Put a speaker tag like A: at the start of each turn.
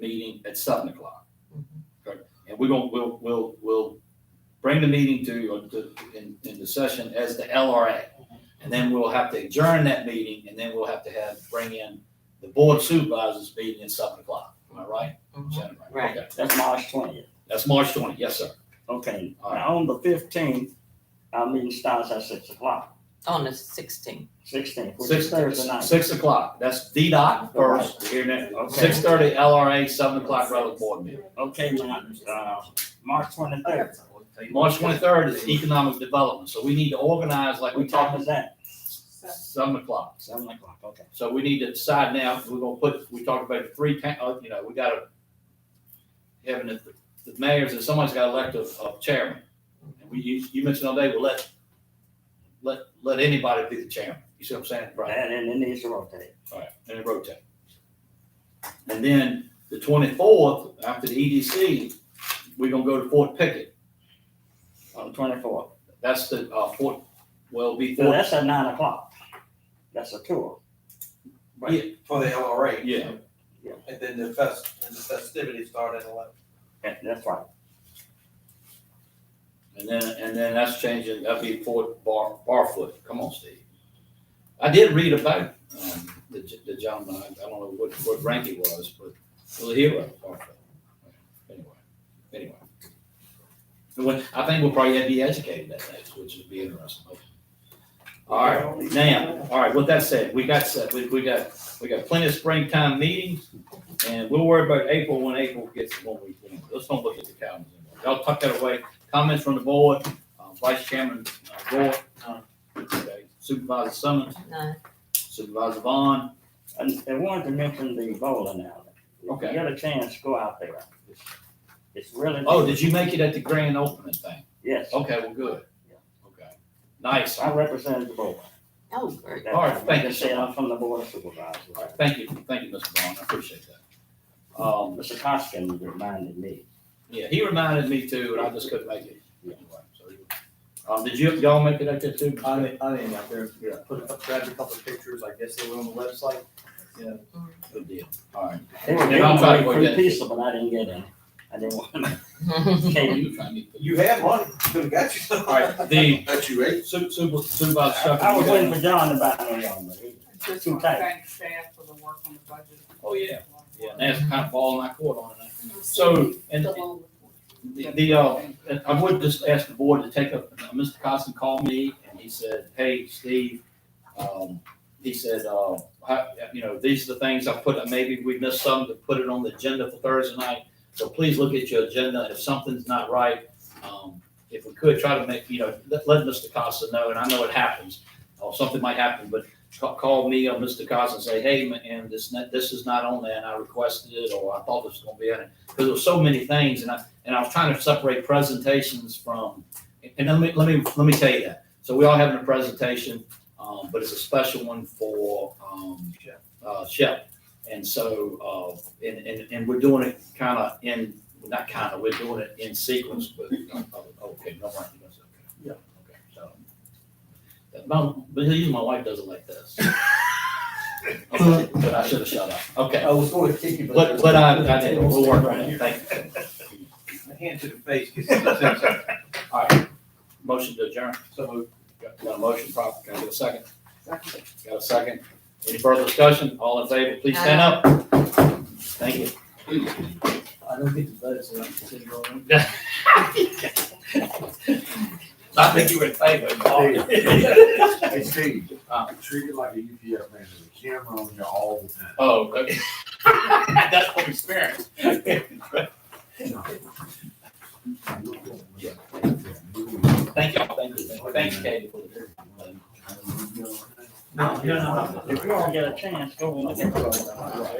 A: meeting at seven o'clock. Okay, and we're gonna, we'll, we'll, we'll bring the meeting to, or to, in, into session as the LRA. And then we'll have to adjourn that meeting, and then we'll have to have, bring in the board of supervisors meeting at seven o'clock, am I right? Is that
B: Right.
A: Okay.
C: That's March twentieth.
A: That's March twenty, yes, sir.
C: Okay,
A: All right.
C: now on the fifteenth, our meeting starts at six o'clock,
B: On the sixteenth.
C: sixteenth, which
A: Six,
C: is Thursday night.
A: six o'clock, that's DDOT first, here now,
C: Okay.
A: six thirty LRA, seven o'clock regular board meeting.
C: Okay, now, uh, March twenty-third,
A: March twenty-third is economic development, so we need to organize like we
C: what
A: talked about,
C: time is that?
A: seven o'clock.
C: Seven o'clock, okay.
A: So we need to decide now, we're gonna put, we talked about three, pa- uh, you know, we gotta, having the, the mayors, and someone's gotta elect a, a chairman. And we, you, you mentioned all day, well, let, let, let anybody be the chairman, you see what I'm saying? Right.
C: And then it needs to rotate.
A: All right, and it rotates. And then the twenty-fourth, after the E EDC, we're gonna go to Fort Pickett.
C: On the twenty-fourth.
A: That's the, uh, Fort, well, it'll be
C: So
A: Fort,
C: that's at nine o'clock. That's a tour.
D: For the LRA.
A: yeah,
D: And then the fest, and the festivities start at eleven.
C: Yeah, That's right.
A: and then, and then that's changing, that'll be Fort Bar, Barfoot, come on, Steve. I did read about, um, the, ge- the gentleman, I I don't know what, what rank he was, but he was a hero, at Barfoot. Anyway, anyway. And when- I think we'll probably have to be educated that next, which would be interesting, hopefully. All right, Now, all right, with that said, we got, set- we, we got, we got plenty of springtime meetings, and we'll worry about April when April gets, when we, when- let's don't look at the calendar anymore. Y'all tuck that away, comments from the board, uh, Vice Chairman, uh, Gore, uh, okay, Supervisor Summers,
B: Nine.
A: Supervisor Vaughn,
C: And I wanted to mention the bowling alley. If
A: Okay.
C: you get a chance, go out there. It's- It's really.
A: oh, did you make it Oh. at the grand opening thing?
C: Yes,
A: Okay, well, good, okay, nice,
C: I
A: all
C: represented the board.
B: Oh, great.
A: All right, thank you
C: Like I said, I'm from the board of supervisors.
A: right, thank you, thank you, Mr. Vaughn, I appreciate that. Um,
C: Mr. Costin reminded me.
A: yeah, he reminded me too, and I just couldn't make it. Anyway, so he- Um, did you, y'all make it at that too?
E: I mean, I mean, out there,
A: Yeah.
E: put, a couple- grabbed a couple of pictures, I guess they were on the website. Yeah,
A: Good deal. All right.
C: They were
A: Yeah,
C: giving
A: I'm
C: away
A: trying to
C: free
A: forget.
C: pizza, but I didn't get any. I didn't want any.
D: You have money, could've got you some.
A: All right, the
D: That you ate.
A: su- su- supervisor Shuffler,
C: I
A: you
C: was
A: got-
C: waiting for John to buy me one, but he-
F: I Just want to thank staff for the work on the budget.
A: Oh, yeah. Yeah, and that's kind of falling my court on it.
F: So.
A: So, and the- the, uh, and I would just ask the board to take up, uh, Mr. Costin called me and he said, hey, Steve, um, he said, uh, I, you know, these are the things I put, maybe we missed some to put it on the agenda for Thursday night. So please look at your agenda. If something's not right, um, if we could try to make, you know, let, let Mr. Costa know, and I know it happens, or something might happen, but ca- call me or Mr. Costa and say, hey, ma- and this, not- this is not on there, and I requested it, or I thought this was gonna be on it. Because there were so many things, and I, and I was trying to separate presentations from, and let me, let me, let me tell you that. So we are having a presentation, um, but it's a special one for, um,
D: Shep.
A: uh, Shep. And so, uh, and, and, and we're doing it kind of in, not kind of, we're doing it in sequence, but, oh, okay, no, right, that's okay.
E: Yeah.
A: Okay, so. That- My, but usually my wife does it like this. Okay, But I should have shut up. Okay,
E: I was going to kick you, but.
A: but, but I, I did, we'll work on it, thank you.
D: A hand to the face, gets you the sense.
A: All right, motion to adjourn.
D: So moved.
A: Got got a motion, prop, can I get a second? Got a second? Any further discussion? All in favor, please stand up. Thank you.
E: I don't get the votes, so I'm sitting on.
A: I think you were in favor.
G: Hey Steve,
A: Uh.
G: treat it like a UPS man, there's a camera on you all the time.
A: Oh, okay. That's what we experienced. Yeah. Thank y'all, thank you, thank you, Katie. for the-
G: No,
C: If you all get a chance, go and look at it.